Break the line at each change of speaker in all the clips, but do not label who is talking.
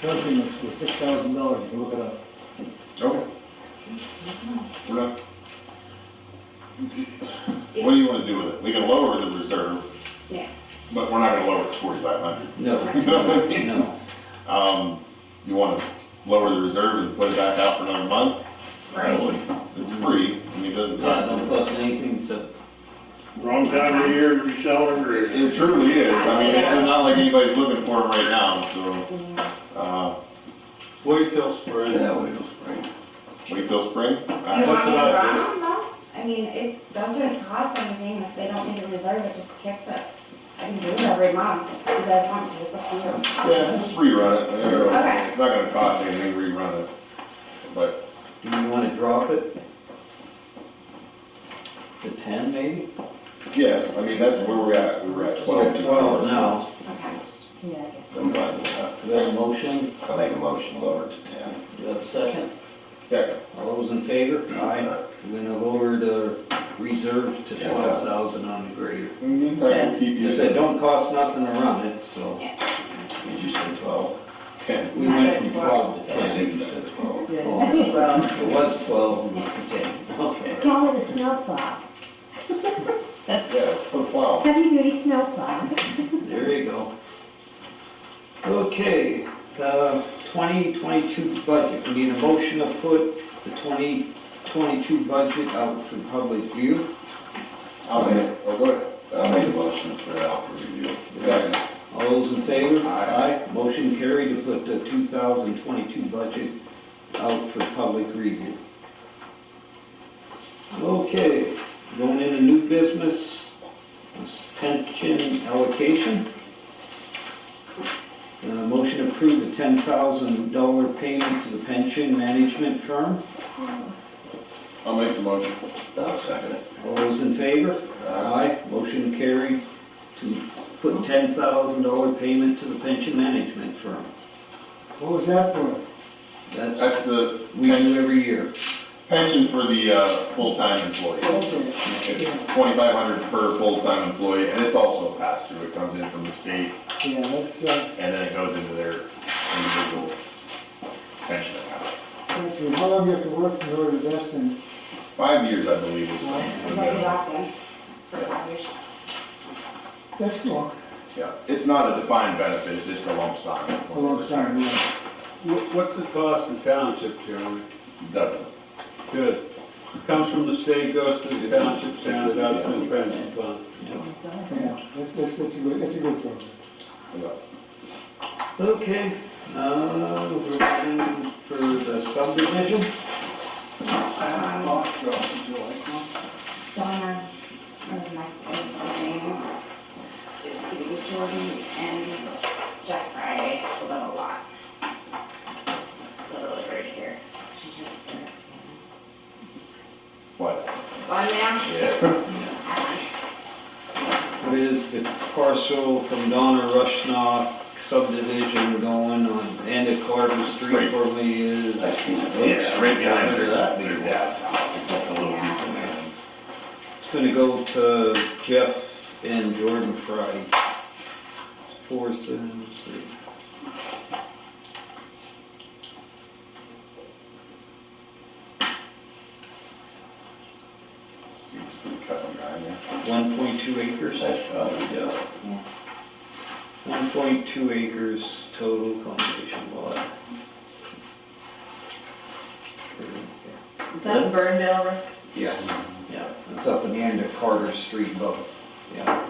charging us for six thousand dollars, you look it up.
Okay. We're not. What do you wanna do with it? We can lower the reserve.
Yeah.
But we're not gonna lower it to forty-five hundred.
No,
You know what I mean?
no.
Um, you wanna lower the reserve and put it back out for another month? It's free, I mean, it doesn't
Yeah, it
cost.
don't cost anything except
Wrong time of year to be selling
It
or
it truly is, I mean, it's not like anybody's looking for them right now, so, uh,
Wait till spring.
Yeah, we just bring.
wait till spring.
Do you
Uh,
want me to
what I
run them though? I mean, it doesn't cost anything, if they don't need a reserve, it just kicks it. I can do it every month, if you guys want to, it's up to you.
Yeah, just rerun it,
Okay.
it's not gonna cost anything, to rerun it, but,
Do you wanna drop it? To ten maybe?
yes, I mean, that's where we're at, we were at twelve.
Twelve.
No,
Okay.
Yeah, I guess.
I'm fine with that.
we have a motion,
I'll make uh, a motion, lower it to ten.
do we have a second?
Second,
All those in favor? We're gonna lower the reserve to
Uh, Yeah.
twelve thousand on the grader.
in the meantime, we'll keep you.
You said, don't cost nothing to run it, so
Did you say twelve?
Ten.
we went from twelve to
I
ten.
think you said twelve.
Yeah, well,
It was twelve to ten. Okay.
call it a snowplow,
Yeah, put a plow.
heavy duty snowplow.
There you go. Okay, the 2022 budget, we need a motion to put the 2022 budget out for public view.
I'll make it. Oh, go ahead.
I'll make a motion to put it out for review.
Second.
All those in favor?
Aye.
Motion carried to put the 2022 budget out for public review. Okay, going into new business, this pension allocation. Uh, motion to approve the ten thousand dollar payment to the pension management firm.
I'll make the motion.
I'll second it.
All those in favor? Aye. Motion carried to put ten thousand dollar payment to the pension management firm.
What was that for?
That's,
That's the
we do every year.
pension for the, uh, full-time employees.
Okay.
It's twenty-five hundred per full-time employee, and it's also passed through, it comes in from the state,
Yeah, that's, uh,
and then it goes into their individual pension account.
that's, it. how long you have to work in order to invest in?
Five years, I believe, is the
You got it
minimum.
locked in for five years.
That's cool.
Yeah, it's not a defined benefit, it's just a lump sum.
A long time, Oh, yeah.
Wh- What's the cost to township, Jeremy?
Doesn't.
Good. Comes from the state, goes to the township, sends it out to the pension fund.
Um,
Yeah, that's, that's, that's a good, that's a good program.
Yeah.
Okay, uh, we're waiting for the subdivision.
Um, Donna, was my, was my name. It's gonna be Jordan and Jack Friday, a little lot. Literally right here. She's just there.
What?
One now?
Yeah.
What is the parcel from Donna Rushnock subdivision going on end of Carter Street
Right.
formerly is?
I seen it.
Yeah, right behind her, that,
It's
dad's house, it's just a little piece of land.
gonna go to Jeff and Jordan Fry. Fourth and, let's see.
You just keep cutting around, yeah.
1.2 acres?
That's probably, yeah.
1.2 acres total conservation lot.
Is that in Burndale, Rick?
Yes. Yeah, it's up in the end of Carter Street above, yeah.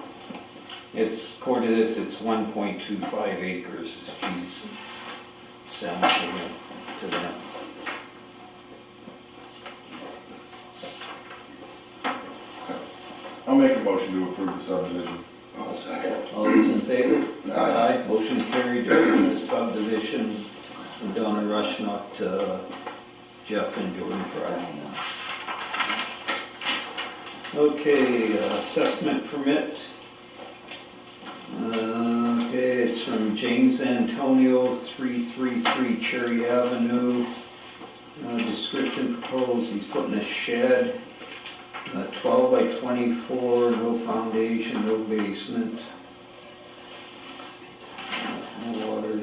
It's, according to this, it's 1.25 acres, she's selling to him, to them.
I'll make a motion to approve the subdivision.
I'll second it.
All those in favor?
Aye.
Motion carried to approve the subdivision from Donna Rushnock to Jeff and Jordan Fry. Okay, assessment permit. Uh, Okay, it's from James Antonio, 333 Cherry Avenue. Uh, Description proposed, he's putting a shed, uh, 12 by 24, no foundation, no basement. No water.